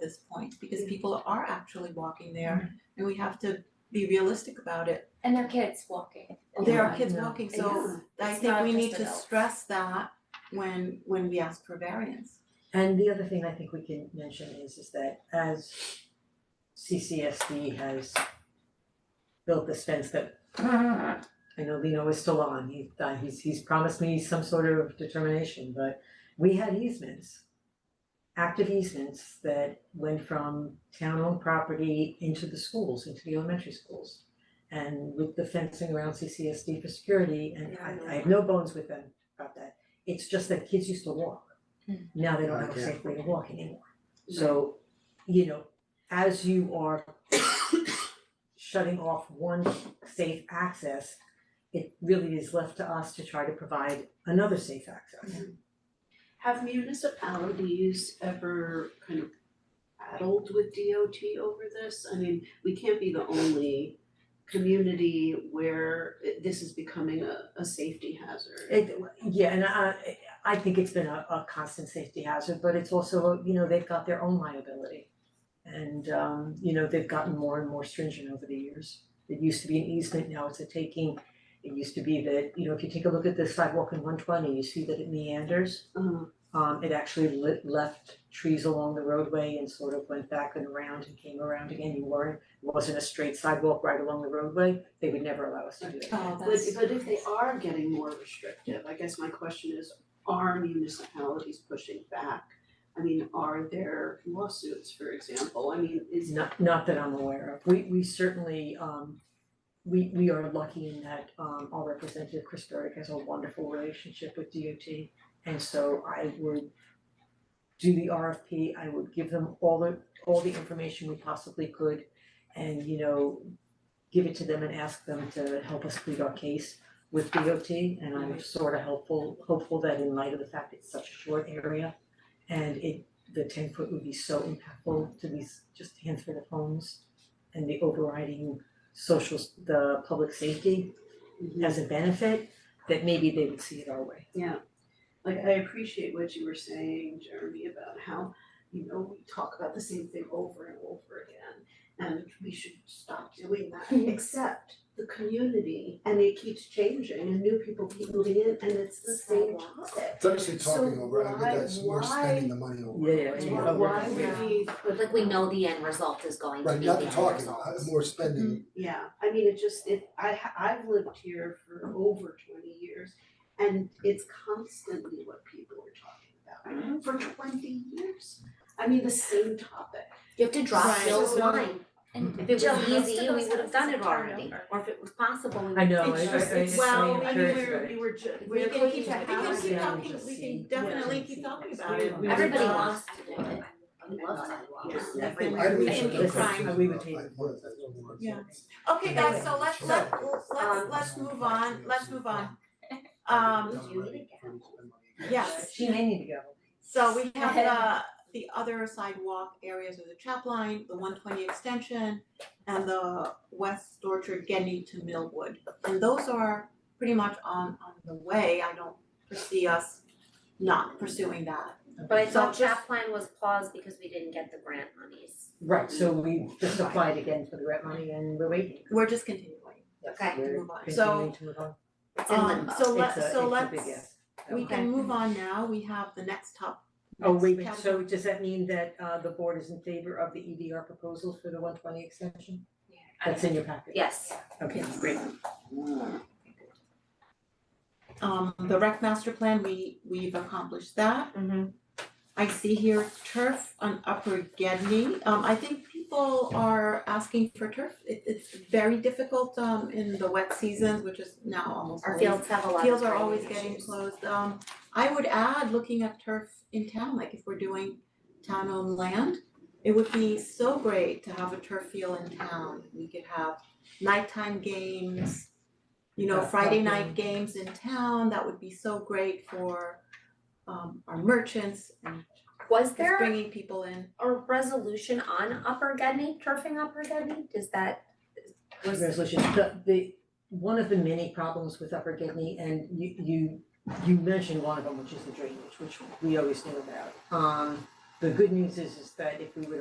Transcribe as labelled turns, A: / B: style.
A: this point, because people are actually walking there, and we have to be realistic about it.
B: And their kids walking.
A: There are
B: Yeah.
A: kids walking, so I
B: It's
A: think
B: not
A: we need
B: just
A: to
B: adults.
A: stress that when, when we ask for variance.
C: And the other thing I think we can mention is is that as CCSD has built this fence that I know Lino is still on, he uh he's he's promised me some sort of determination, but we had easements. Active easements that went from town owned property into the schools, into the elementary schools. And with the fencing around CCSD for security, and
B: Yeah, I know.
C: I I have no bones with them about that, it's just that kids used to walk.
B: Mm.
C: Now they don't have a
D: Okay.
C: safe way to walk anymore, so, you know, as you are shutting off one safe access, it really is left to us to try to provide another safe access.
E: Have municipalities ever kind of battled with DOT over this? I mean, we can't be the only community where it- this is becoming a, a safety hazard.
C: It, yeah, and I I think it's been a a constant safety hazard, but it's also, you know, they've got their own liability. And um, you know, they've gotten more and more stringent over the years. It used to be an easement, now it's a taking. It used to be that, you know, if you take a look at the sidewalk in one twenty, you see that it meanders.
E: Uh,
C: Um it actually lit left trees along the roadway and sort of went back and around and came around again, you weren't, it wasn't a straight sidewalk right along the roadway, they would never allow us to do that.
A: Oh,
E: But,
A: that's,
E: but if they are getting more restrictive, I guess my question is, are municipalities pushing back? I mean, are there lawsuits, for example? I mean, is,
C: Not not that I'm aware of, we we certainly um we we are lucky in that um our representative Chris Berg has a wonderful relationship with DOT. And so I would do the RFP, I would give them all the all the information we possibly could and you know give it to them and ask them to help us plead our case with DOT and I'm sort of helpful hopeful that in light of the fact it's such a short area and it the ten foot would be so impactful to these just handful of homes and the overriding social s- the public safety as a benefit that maybe they would see it our way.
E: like I appreciate what you were saying, Jeremy, about how, you know, we talk about the same thing over and over again. And we should stop doing that, except the community, and it keeps changing and new people keep moving in and it's the same
B: Sidewalks.
E: topic.
D: It's actually
E: So
D: talking over, I think
E: why-
D: that's, we're
E: why-
D: spending the money over.
C: Yeah, yeah,
D: That's
C: yeah.
D: what
C: But
D: we're
E: Why
D: doing.
E: would we put?
F: Like we know the end result is going to
D: Right,
F: be the
D: not the
F: end
D: talking,
F: result.
D: uh, more spending,
E: Yeah, I mean, it just, it, I ha- I've lived here for over twenty years and it's constantly what people are talking about for twenty years. I mean, the same topic.
F: You have to drop
A: Right.
F: Bill's
E: So-
F: line, and if it
B: Jill,
F: was
B: most
F: easy,
B: of
F: we
B: those
F: would have done it
B: houses are turned
F: already,
B: over.
F: or if it was possible, we would.
C: I
A: It's
C: know, I I
A: just-
C: I just
A: well,
C: I'm
A: I mean,
C: encouraged
A: we're-
C: about it.
E: were
A: we
E: ju-
A: can keep, we
E: cooking with
A: can
E: hours
A: keep
C: Yeah,
A: talking,
C: just
A: we
C: see.
A: can definitely
C: Yeah.
A: keep talking about it. We would
F: Everybody
A: love-
F: wants to do it, I love sidewalks.
C: Yeah.
A: I think
D: I
A: Mm-hmm. we
D: believe so,
A: should
C: Listen,
A: keep
D: that's what
A: trying.
D: I'm
C: we would
D: about.
C: take
D: I-
C: it.
D: yeah, that's what we're
A: Yeah.
D: doing.
A: Okay, guys, so
D: Anyway,
A: let's
D: so-
A: let let's let's
D: Um,
A: move on, let's move on. Um,
D: Doesn't really spend money.
A: yes,
C: She may need to go.
A: so we have uh the other sidewalk areas of the chap line, the one twenty extension and the West Orchard Getty to Millwood. And those are pretty much on on the way. I don't foresee us not pursuing that.
F: But I
A: So
F: thought
A: just-
F: Chapline was paused because we didn't get the grant monies.
C: Right, so we just applied again for the grant money and we're waiting.
A: We're just continuing
C: Yes,
F: Okay.
C: we're
A: Move on.
C: continuing to move on.
F: It's in
A: Um
F: limbo.
A: so
C: It's
A: let
C: a-
A: so
C: it's a
A: let's
C: big yes.
A: we
F: Okay.
A: can move on now. We have the next top
C: Oh, wait,
A: next category.
C: so does that mean that uh the board is in favor of the EDR proposal for the one twenty extension? That's in your packet?
F: Yes,
C: Okay, great.
A: Um, the rec master plan, we, we've accomplished that. I see here turf on Upper Gedney. Um, I think people are asking for turf. It, it's very difficult, um, in the wet seasons, which is now almost
F: our
A: always-
F: fields have a lot of
A: Fields are always
F: drainage
A: getting
F: issues.
A: closed. Um, I would add, looking at turf in town, like if we're doing town-owned land, it would be so great to have a turf field in town. We could have nighttime games, you know,
C: Yeah,
A: Friday
C: outdoor.
A: night games in town. That would be so great for um our merchants and
F: Was
A: just
F: there
A: bringing people in.
F: a resolution on Upper Gedney, turfing Upper Gedney? Does that, was,
C: Resolution, the the, one of the many problems with Upper Gidney, and you you you mentioned one of them, which is the drainage, which we always knew about. Um, the good news is is that if we were to